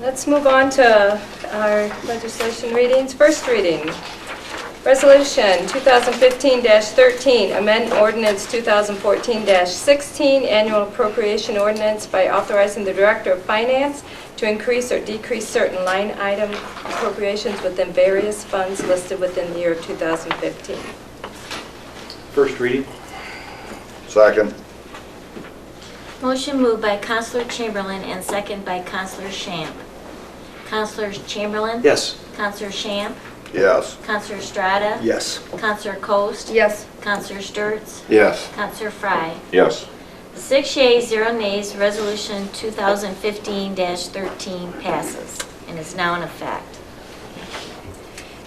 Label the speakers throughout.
Speaker 1: Let's move on to our legislation readings. First reading, Resolution 2015-13, amend ordinance 2014-16, annual appropriation ordinance by authorizing the Director of Finance to increase or decrease certain line item appropriations within various funds listed within the year of 2015.
Speaker 2: First reading?
Speaker 3: Second.
Speaker 4: Motion moved by Counselor Chamberlain and second by Counselor Shamp. Counselor Chamberlain?
Speaker 2: Yes.
Speaker 4: Counselor Shamp?
Speaker 3: Yes.
Speaker 4: Counselor Estrada?
Speaker 2: Yes.
Speaker 4: Counselor Coast?
Speaker 1: Yes.
Speaker 4: Counselor Sturts?
Speaker 3: Yes.
Speaker 4: Counselor Fry.
Speaker 3: Yes.
Speaker 4: Six yeas, zero nays, Resolution 2015-13 passes and is now in effect.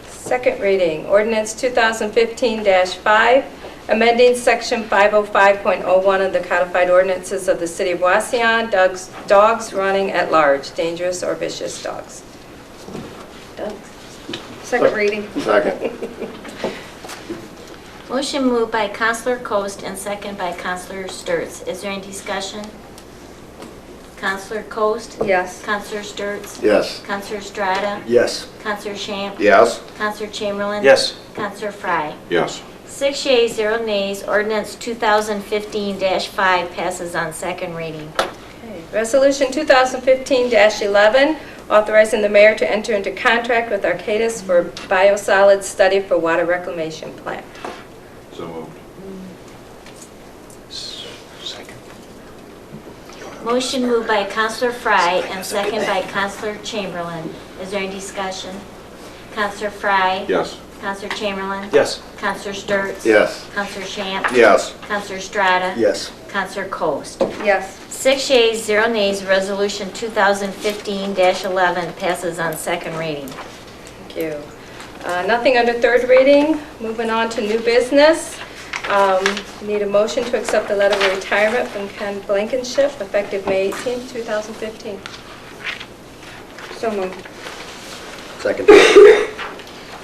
Speaker 1: Second reading, ordinance 2015-5, amending section 505.01 of the codified ordinances of the city of Waseon, dogs- dogs running at large, dangerous or vicious dogs. Dogs.
Speaker 5: Second reading.
Speaker 3: Second.
Speaker 4: Motion moved by Counselor Coast and second by Counselor Sturts. Is there any discussion? Counselor Coast?
Speaker 5: Yes.
Speaker 4: Counselor Sturts?
Speaker 3: Yes.
Speaker 4: Counselor Estrada?
Speaker 2: Yes.
Speaker 4: Counselor Shamp?
Speaker 3: Yes.
Speaker 4: Counselor Chamberlain?
Speaker 2: Yes.
Speaker 4: Counselor Fry.
Speaker 3: Yes.
Speaker 4: Six yeas, zero nays, ordinance 2015-5 passes on second reading.
Speaker 1: Okay. Resolution 2015-11, authorizing the mayor to enter into contract with Arcadis for biosolids study for water reclamation plant.
Speaker 3: So moved.
Speaker 2: Second.
Speaker 4: Motion moved by Counselor Fry and second by Counselor Chamberlain. Is there any discussion? Counselor Fry.
Speaker 3: Yes.
Speaker 4: Counselor Chamberlain.
Speaker 2: Yes.
Speaker 4: Counselor Sturts.
Speaker 3: Yes.
Speaker 4: Counselor Shamp.
Speaker 3: Yes.
Speaker 4: Counselor Strata.
Speaker 2: Yes.
Speaker 4: Counselor Coast.
Speaker 5: Yes.
Speaker 4: Six yeas, zero nays, resolution 2015-11 passes on second reading.
Speaker 1: Thank you. Uh, Nothing under third reading. Moving on to new business. Um, Need a motion to accept the letter of retirement from Ken Blankenship effective May 18, 2015.
Speaker 5: So moved.
Speaker 2: Second.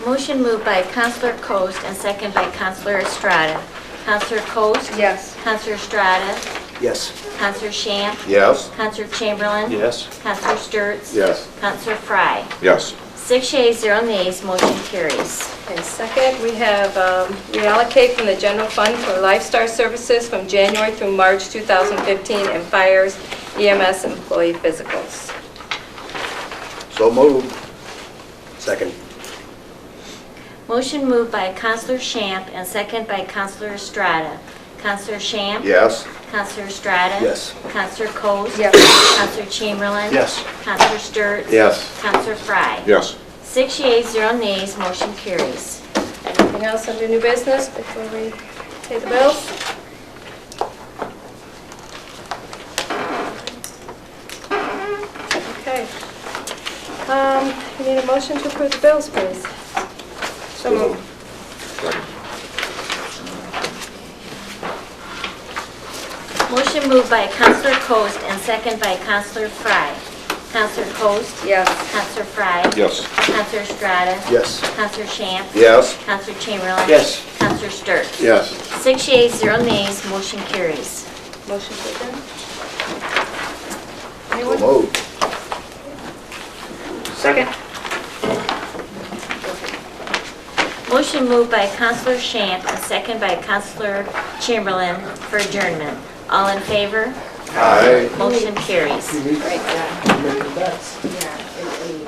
Speaker 4: Motion moved by Counselor Coast and second by Counselor Estrada. Counselor Coast?
Speaker 5: Yes.
Speaker 4: Counselor Estrada?
Speaker 2: Yes.
Speaker 4: Counselor Shamp?
Speaker 3: Yes.
Speaker 4: Counselor Chamberlain?
Speaker 2: Yes.
Speaker 4: Counselor Sturts?
Speaker 3: Yes.
Speaker 4: Counselor Fry.
Speaker 3: Yes.
Speaker 4: Six yeas, zero nays, motion carries.
Speaker 1: Okay, second, we have um, reallocate from the general fund for lifestyle services from January through March 2015 and fires EMS employee physicals.
Speaker 3: So moved.
Speaker 2: Second.
Speaker 4: Motion moved by Counselor Shamp and second by Counselor Estrada. Counselor Shamp?
Speaker 3: Yes.
Speaker 4: Counselor Estrada?
Speaker 2: Yes.
Speaker 4: Counselor Coast?
Speaker 5: Yes.
Speaker 4: Counselor Chamberlain?
Speaker 2: Yes.
Speaker 4: Counselor Sturts?
Speaker 3: Yes.
Speaker 4: Counselor Fry.
Speaker 3: Yes.
Speaker 4: Six yeas, zero nays, motion carries.
Speaker 1: Anything else under new business before we pay the bills? Okay. Um, We need a motion to approve the bills, please.
Speaker 5: So moved.
Speaker 4: Motion moved by Counselor Coast and second by Counselor Fry. Counselor Coast?
Speaker 5: Yes.
Speaker 4: Counselor Fry?
Speaker 3: Yes.
Speaker 4: Counselor Estrada?
Speaker 2: Yes.
Speaker 4: Counselor Shamp?
Speaker 3: Yes.
Speaker 4: Counselor Chamberlain?
Speaker 2: Yes.
Speaker 4: Counselor Sturt?
Speaker 3: Yes.
Speaker 4: Six yeas, zero nays, motion carries.
Speaker 1: Motion to adjourn?
Speaker 3: So moved.
Speaker 5: Second.
Speaker 4: Motion moved by Counselor Shamp and second by Counselor Chamberlain for adjournment. All in favor?
Speaker 3: Aye.
Speaker 4: Motion carries.
Speaker 1: Right, yeah. Yeah, it- it-